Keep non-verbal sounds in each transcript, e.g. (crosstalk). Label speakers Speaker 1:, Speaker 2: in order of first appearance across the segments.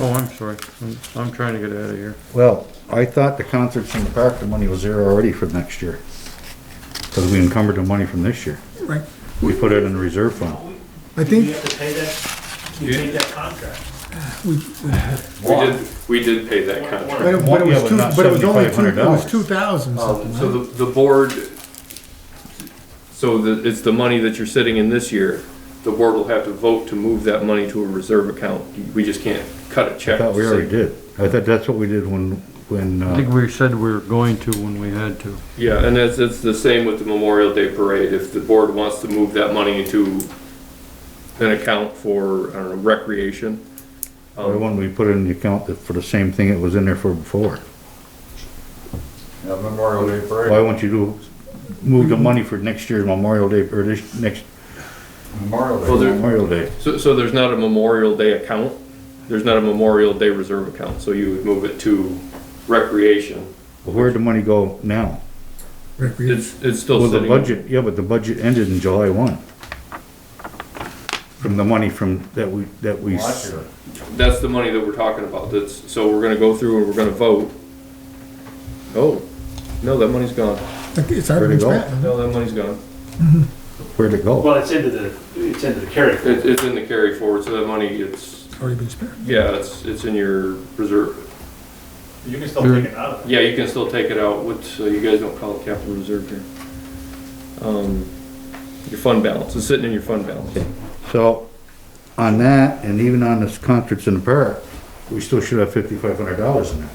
Speaker 1: Oh, I'm sorry. I'm, I'm trying to get out of here.
Speaker 2: Well, I thought the concerts in the park, the money was there already for next year. Cause we encumbered the money from this year.
Speaker 3: Right.
Speaker 2: We put it in the reserve fund.
Speaker 3: I
Speaker 4: You
Speaker 3: think
Speaker 4: have to pay that, you
Speaker 5: Yeah.
Speaker 4: paid that contract.
Speaker 3: we,
Speaker 5: We did, we did pay that contract.
Speaker 3: but it but it
Speaker 2: Yeah,
Speaker 3: was
Speaker 2: but
Speaker 3: two,
Speaker 2: not
Speaker 3: but it was only two, it was
Speaker 2: $7,500.
Speaker 3: two thousand
Speaker 2: Oh,
Speaker 5: Um,
Speaker 3: something,
Speaker 5: so
Speaker 3: right?
Speaker 5: the, the board, so the, it's the money that you're sitting in this year, the board will have to vote to move that money to a reserve account. We just can't cut a
Speaker 2: I
Speaker 5: check.
Speaker 2: thought we already did. I thought that's what we did when, when,
Speaker 1: I think
Speaker 2: uh,
Speaker 1: we said we were going to when we had to.
Speaker 5: Yeah, and that's, it's the same with the Memorial Day Parade. If the board wants to move that money into an account for, I don't know, recreation.
Speaker 2: the
Speaker 5: um,
Speaker 2: one we put in the account that- for the same thing it was in there for before.
Speaker 6: Yeah, Memorial Day
Speaker 2: Why
Speaker 6: Parade,
Speaker 2: won't you do, move the money for next year's Memorial Day, or this, next
Speaker 6: Memorial Day.
Speaker 5: Well, there-
Speaker 2: Memorial Day?
Speaker 5: So, so there's not a Memorial Day account? There's not a Memorial Day reserve account, so you would move it to recreation.
Speaker 2: Where'd the money go now?
Speaker 3: Recreation.
Speaker 5: It's, it's still
Speaker 2: Well,
Speaker 5: sitting.
Speaker 2: the budget, yeah, but the budget ended in July one. From the money from, that we, that we.
Speaker 6: Last year.
Speaker 5: That's the money that we're talking about, that's, so we're gonna go through and we're gonna vote. Oh, no, that money's gone,
Speaker 3: Like, It's already
Speaker 2: Where'd
Speaker 3: been
Speaker 2: it go?
Speaker 3: spent.
Speaker 5: no, that money's gone.
Speaker 2: Where'd it go?
Speaker 4: Well, it's into the, it's into the carry.
Speaker 5: It, it's in the carry forward, so that money, it's,
Speaker 3: Already been spent.
Speaker 5: yeah, it's, it's in your reserve.
Speaker 4: You can still take it out of it.
Speaker 5: Yeah, you can still take it out, what, so you guys don't call it capital reserve here. Um, your fund balance, it's sitting in your fund balance.
Speaker 2: So, on that, and even on this concerts in the park, we still should have fifty-five hundred dollars in there.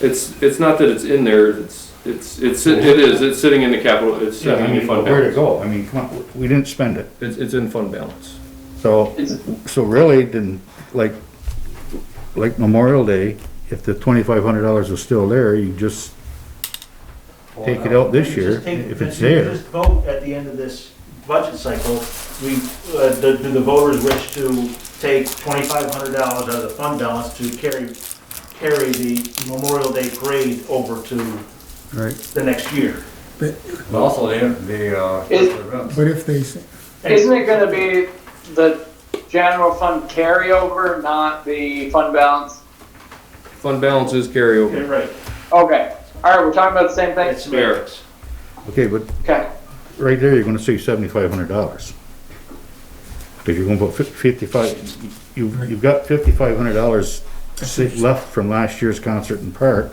Speaker 5: It's, it's not that it's in there, it's, it's, it's, it is, it's sitting in the capital, it's
Speaker 2: Yeah,
Speaker 5: sitting
Speaker 2: I
Speaker 5: in your
Speaker 2: mean,
Speaker 5: fund
Speaker 2: Where'd it go?
Speaker 5: balance.
Speaker 2: I mean, come on, we didn't spend it.
Speaker 5: It's, it's in fund balance.
Speaker 2: So, so really, then, like, like Memorial Day, if the twenty-five hundred dollars was still there, you just take it out this
Speaker 4: You
Speaker 2: year,
Speaker 4: just take-
Speaker 2: if it's
Speaker 4: you
Speaker 2: there.
Speaker 4: Just vote at the end of this budget cycle, we, uh, do do the voters wish to take twenty-five hundred dollars out of the fund balance to carry, carry the Memorial Day Parade over to
Speaker 1: Right.
Speaker 4: the next year?
Speaker 6: But Also, the, the, uh,
Speaker 7: It-
Speaker 6: events.
Speaker 3: But if they, s-
Speaker 7: Isn't it gonna be the general fund carryover, not the fund balance?
Speaker 5: Fund balance is carryover.
Speaker 4: You're right,
Speaker 7: Okay, alright, we're talking about the same
Speaker 4: it's
Speaker 7: thing?
Speaker 4: semantics.
Speaker 2: Okay, but
Speaker 7: Okay,
Speaker 2: right there, you're gonna see seventy-five hundred dollars. If you're gonna put fif- fifty-five, you, you've got fifty-five hundred dollars left from last year's concert in Park,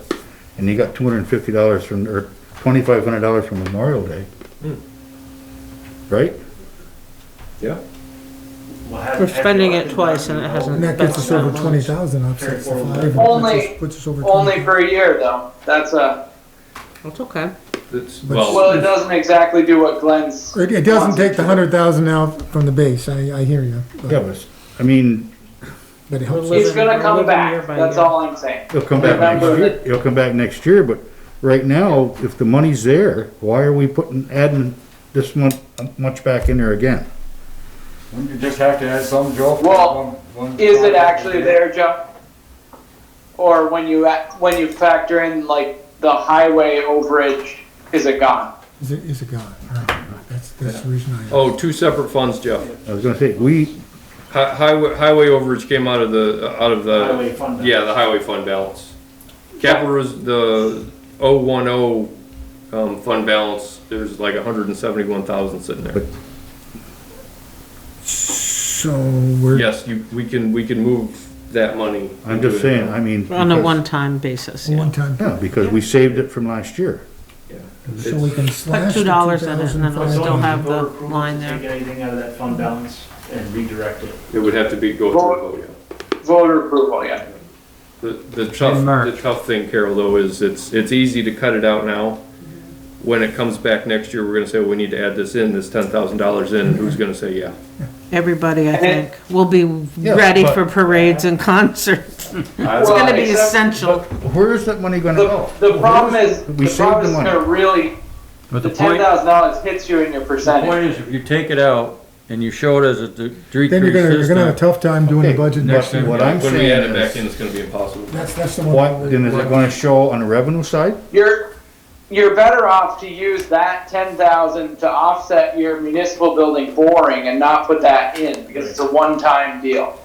Speaker 2: and you got two hundred and fifty dollars from, or twenty-five hundred dollars from Memorial Day. Right?
Speaker 5: Yeah.
Speaker 4: We'll have- have
Speaker 8: We're
Speaker 4: your
Speaker 8: spending it
Speaker 4: elected
Speaker 8: twice and it
Speaker 4: body
Speaker 8: hasn't-
Speaker 3: and that gets us over twenty thousand offsets the five. and puts us-
Speaker 7: Only-
Speaker 3: Puts us over
Speaker 7: only
Speaker 3: twenty.
Speaker 7: for a year though, that's a,
Speaker 8: That's okay.
Speaker 5: It's,
Speaker 3: But-
Speaker 5: well,
Speaker 7: well, it doesn't exactly do what Glenn's.
Speaker 3: It, it doesn't
Speaker 7: wants
Speaker 3: take the
Speaker 7: to.
Speaker 3: hundred thousand out from the base, I, I hear you,
Speaker 2: Yeah,
Speaker 3: but,
Speaker 2: but, I mean,
Speaker 3: but it helps.
Speaker 7: It's gonna
Speaker 8: Living-
Speaker 7: come
Speaker 8: living
Speaker 7: back,
Speaker 8: year by
Speaker 7: that's
Speaker 8: year.
Speaker 7: all I'm saying.
Speaker 2: it'll come back next
Speaker 7: Remember
Speaker 2: year, it'll come back next year, but right now, if the money's there, why are we putting, adding this much, much back in there again?
Speaker 6: Wouldn't you just have to add some, Joe?
Speaker 7: Well,
Speaker 6: One- one-
Speaker 7: Is it actually there, Joe? Or when you, act- when you factor in like the highway overage, is it gone?
Speaker 3: Is it, is it gone? Right. That's, that's the reason I,
Speaker 5: oh, two separate funds, Jeff.
Speaker 2: I was gonna say, we,
Speaker 5: Hi- Highway, highway overage came out of the, uh, out of the.
Speaker 4: Highway fund.
Speaker 5: Yeah, the highway fund balance. Capital res, the oh one oh, um, fund balance, there's like hundred and seventy-one thousand sitting there.
Speaker 3: so we're,
Speaker 5: Yes, you, we can, we can move that money.
Speaker 2: I'm just
Speaker 5: into it.
Speaker 2: saying, I mean.
Speaker 8: On a
Speaker 2: because-
Speaker 8: one-time basis, yeah.
Speaker 3: one time,
Speaker 2: Yeah, because we saved it from last year.
Speaker 3: so we can slash the two
Speaker 8: $2 in it, and
Speaker 3: thousand
Speaker 8: then
Speaker 4: It's
Speaker 8: I
Speaker 4: only
Speaker 8: still
Speaker 3: five.
Speaker 8: have
Speaker 4: voter
Speaker 8: the
Speaker 4: approval to
Speaker 8: line there.
Speaker 4: Take anything out of that fund balance and redirect it.
Speaker 5: It would have to be, go through a vote.
Speaker 7: Voter approval, yeah.
Speaker 5: The, the tough,
Speaker 1: In March.
Speaker 5: the tough thing, Carol, though, is it's, it's easy to cut it out now. When it comes back next year, we're gonna say, we need to add this in, this ten thousand dollars in, and who's gonna say yeah?
Speaker 8: Everybody, I
Speaker 7: And it-
Speaker 8: think, will be ready for parades and concerts. (laughs) It's gonna be
Speaker 7: except-
Speaker 8: essential.
Speaker 2: Where is that money gonna
Speaker 7: The,
Speaker 2: go?
Speaker 7: the problem is,
Speaker 2: We
Speaker 7: the
Speaker 2: saved
Speaker 7: problem
Speaker 2: the
Speaker 7: is
Speaker 2: money.
Speaker 7: gonna really,
Speaker 1: But
Speaker 7: the
Speaker 1: the
Speaker 7: ten
Speaker 1: point,
Speaker 7: thousand dollars hits you in your
Speaker 9: The
Speaker 7: percentage.
Speaker 9: point is, if you take it out and you show it as a de-
Speaker 3: Then you're gonna,
Speaker 9: decreased
Speaker 3: you're gonna have a
Speaker 9: system,
Speaker 3: tough time doing the
Speaker 2: Okay,
Speaker 3: budget
Speaker 2: but
Speaker 3: next year.
Speaker 2: What I'm
Speaker 5: When we add
Speaker 2: saying
Speaker 5: it back
Speaker 2: is,
Speaker 5: in, it's gonna be impossible.
Speaker 3: That's, that's the one.
Speaker 2: what, then is it gonna show on the revenue side?
Speaker 7: You're, you're better off to use that ten thousand to offset your municipal building boring and not put that in, because it's a one-time deal.